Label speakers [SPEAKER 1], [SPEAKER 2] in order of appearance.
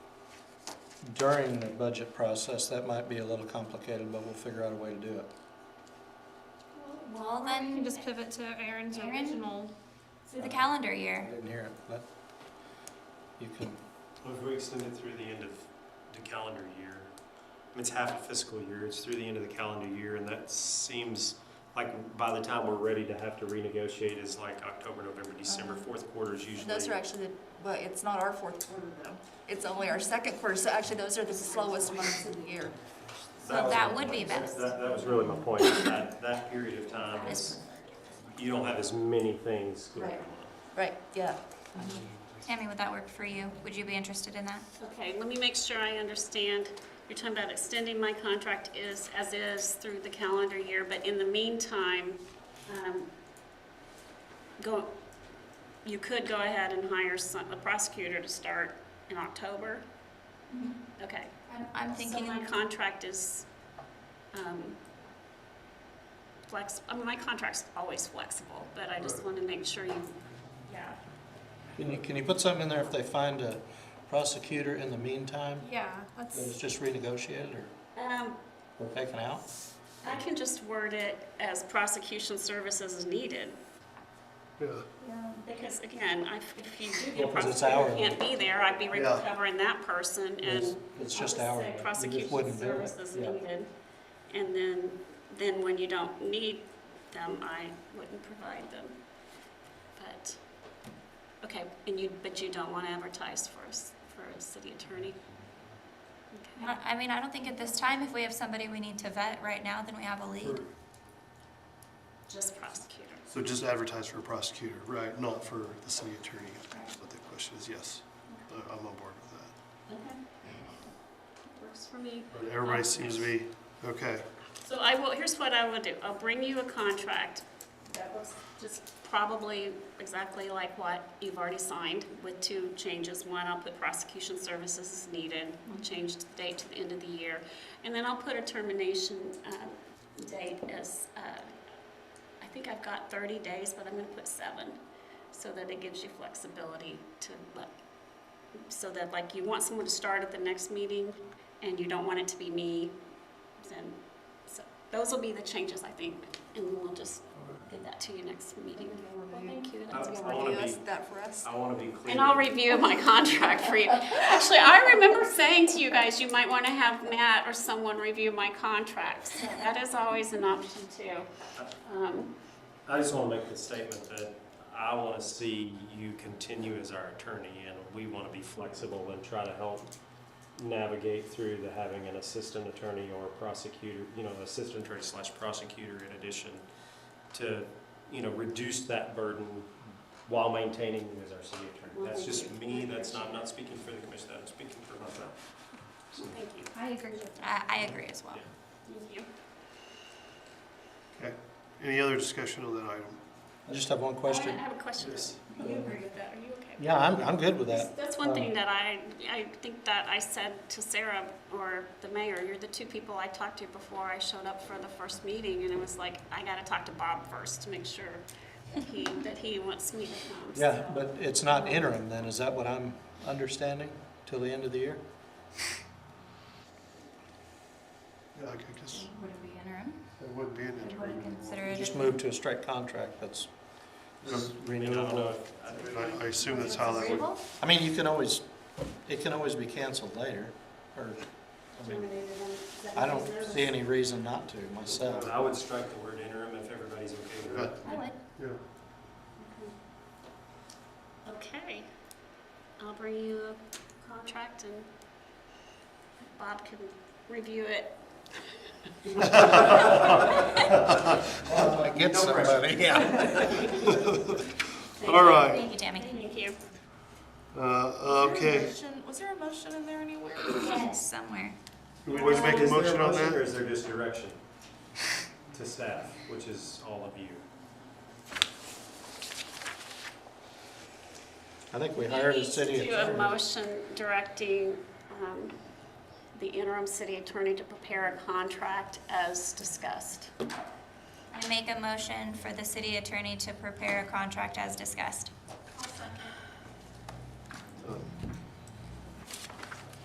[SPEAKER 1] during the budget process, that might be a little complicated, but we'll figure out a way to do it.
[SPEAKER 2] Well,
[SPEAKER 3] Or we
[SPEAKER 2] then,
[SPEAKER 3] can just pivot to Aaron's
[SPEAKER 2] Aaron?
[SPEAKER 3] original.
[SPEAKER 2] through the calendar
[SPEAKER 1] I
[SPEAKER 2] year.
[SPEAKER 1] didn't hear it, but you can,
[SPEAKER 4] Well, If we extend it through the end of the calendar year, I mean, it's half a fiscal year, it's through the end of the calendar year, and that seems like by the time we're ready to have to renegotiate is like October, November, December,
[SPEAKER 2] Oh.
[SPEAKER 5] Uh-huh.
[SPEAKER 4] fourth quarter is usually.
[SPEAKER 5] Those are actually, the- but it's not our fourth quarter though. It's only our second quarter, so actually those are the slowest months of the year.
[SPEAKER 2] So
[SPEAKER 4] was
[SPEAKER 2] that
[SPEAKER 4] my
[SPEAKER 2] would be
[SPEAKER 4] point.
[SPEAKER 2] best.
[SPEAKER 4] That, that was really my point, is that, that period of time is, you don't have as many things going on.
[SPEAKER 5] Right. Right, yeah.
[SPEAKER 2] Tammy, would that work for you? Would you be interested in that?
[SPEAKER 6] Okay, let me make sure I understand. You're talking about extending my contract is, as is through the calendar year, but in the meantime, um, go, you could go ahead and hire some, a prosecutor to start in October? Okay.
[SPEAKER 2] I'm- I'm
[SPEAKER 6] So
[SPEAKER 2] thinking,
[SPEAKER 6] my contract is, um, flex, I mean, my contract's always flexible, but I just want to make sure you, yeah.
[SPEAKER 1] can you, can you put something in there if they find a prosecutor in the meantime?
[SPEAKER 3] Yeah,
[SPEAKER 1] That it's
[SPEAKER 3] that's,
[SPEAKER 1] just renegotiated or,
[SPEAKER 6] Um,
[SPEAKER 1] or taken out?
[SPEAKER 6] I can just word it as prosecution services is needed. Because again, I, if you do get a
[SPEAKER 1] Yeah, 'cause it's
[SPEAKER 6] prosecutor who
[SPEAKER 1] hourly.
[SPEAKER 6] can't be there, I'd be
[SPEAKER 1] Yeah.
[SPEAKER 6] recovering that person
[SPEAKER 1] It's,
[SPEAKER 6] and.
[SPEAKER 1] it's just
[SPEAKER 6] I would
[SPEAKER 1] hourly.
[SPEAKER 6] say
[SPEAKER 1] You just
[SPEAKER 6] Prosecution
[SPEAKER 1] wouldn't do it.
[SPEAKER 6] services
[SPEAKER 1] Yeah.
[SPEAKER 6] needed. And then, then when you don't need them, I wouldn't provide them. But, okay, and you, but you don't want to advertise for us, for a city attorney? Okay.
[SPEAKER 2] I I mean, I don't think at this time, if we have somebody we need to vet right now, then we have a lead.
[SPEAKER 6] Just prosecutor.
[SPEAKER 7] So just advertise for a prosecutor, right, not for the city attorney, is what the question is, yes. I- I'm on board with that.
[SPEAKER 6] Okay. Works for me. Um,
[SPEAKER 7] But Everybody seems to be, okay,
[SPEAKER 6] So I will, here's what I will do. I'll bring you a contract that looks just probably exactly like what you've already signed with two changes. One, I'll put prosecution services as needed. I'll change the date to the end of the year. And then I'll put a termination um, date as, uh, I think I've got 30 days, but I'm going to put seven so that it gives you flexibility to let so that like you want someone to start at the next meeting and you don't want it to be me, then, so, those will be the changes, I think, and we'll just get that to you next meeting. Well, thank you.
[SPEAKER 4] Uh,
[SPEAKER 6] That's-
[SPEAKER 4] I
[SPEAKER 5] You
[SPEAKER 4] wanna
[SPEAKER 5] wanna do
[SPEAKER 4] be-
[SPEAKER 5] us- that for us?
[SPEAKER 4] I want to be clear.
[SPEAKER 6] And I'll review my contract for you. Actually, I remember saying to you guys, you might want to have Matt or someone review my contract. So That is always an option too. Um,
[SPEAKER 4] I just want to make the statement that I want to see you continue as our attorney, and we want to be flexible and try to help navigate through the having an assistant attorney or prosecutor, you know, assistant attorney slash prosecutor in addition to, you know, reduce that burden while maintaining you as our city attorney. That's just me, that's not, I'm not speaking for the commission, I'm speaking for myself. So,
[SPEAKER 6] Thank you.
[SPEAKER 3] I agree with
[SPEAKER 2] I, I agree as well.
[SPEAKER 6] Thank you.
[SPEAKER 7] okay. Any other discussion on that item?
[SPEAKER 1] I just have one question.
[SPEAKER 6] I have a question.
[SPEAKER 4] Yes.
[SPEAKER 6] You agree with that, are you okay?
[SPEAKER 1] Yeah, Um, I'm, I'm good with that.
[SPEAKER 6] That's one thing that I, I think that I said to Sarah or the mayor, you're the two people I talked to before I showed up for the first meeting, and it was like, I gotta talk to Bob first to make sure that he, that he wants me to come.
[SPEAKER 1] Yeah, but it's not interim then, is that what I'm understanding, till the end of the year?
[SPEAKER 7] Yeah, I I guess
[SPEAKER 2] Would it be interim?
[SPEAKER 7] it wouldn't be an
[SPEAKER 2] Would
[SPEAKER 7] interim.
[SPEAKER 2] we consider
[SPEAKER 1] You
[SPEAKER 2] it?
[SPEAKER 1] Just move to a straight contract that's
[SPEAKER 4] I mean, I don't know
[SPEAKER 1] renewable.
[SPEAKER 4] if- I-
[SPEAKER 7] I I assume that's how that would,
[SPEAKER 2] Agreeable?
[SPEAKER 1] I mean, you can always, it can always be canceled later, or, I mean, I don't see any reason not to myself.
[SPEAKER 4] I would strike the word interim if everybody's okay with it.
[SPEAKER 2] I would.
[SPEAKER 7] yeah.
[SPEAKER 6] Okay, I'll bring you a contract and Bob can review it.
[SPEAKER 1] I get somebody, yeah.
[SPEAKER 7] All right,
[SPEAKER 2] Thank you, Tammy.
[SPEAKER 6] Thank you.
[SPEAKER 7] uh, okay.
[SPEAKER 5] Was there a motion in there anywhere?
[SPEAKER 2] Yes, somewhere.
[SPEAKER 7] Do we need to make a
[SPEAKER 4] Is there
[SPEAKER 7] motion on
[SPEAKER 4] Or
[SPEAKER 7] that?
[SPEAKER 4] is there just direction to staff, which is all of you?
[SPEAKER 1] I think we
[SPEAKER 6] You
[SPEAKER 1] hired a
[SPEAKER 6] need to
[SPEAKER 1] city
[SPEAKER 6] Do a
[SPEAKER 1] attorney.
[SPEAKER 6] motion directing um, the interim city attorney to prepare a contract as discussed.
[SPEAKER 2] I make a motion for the city attorney to prepare a contract as discussed.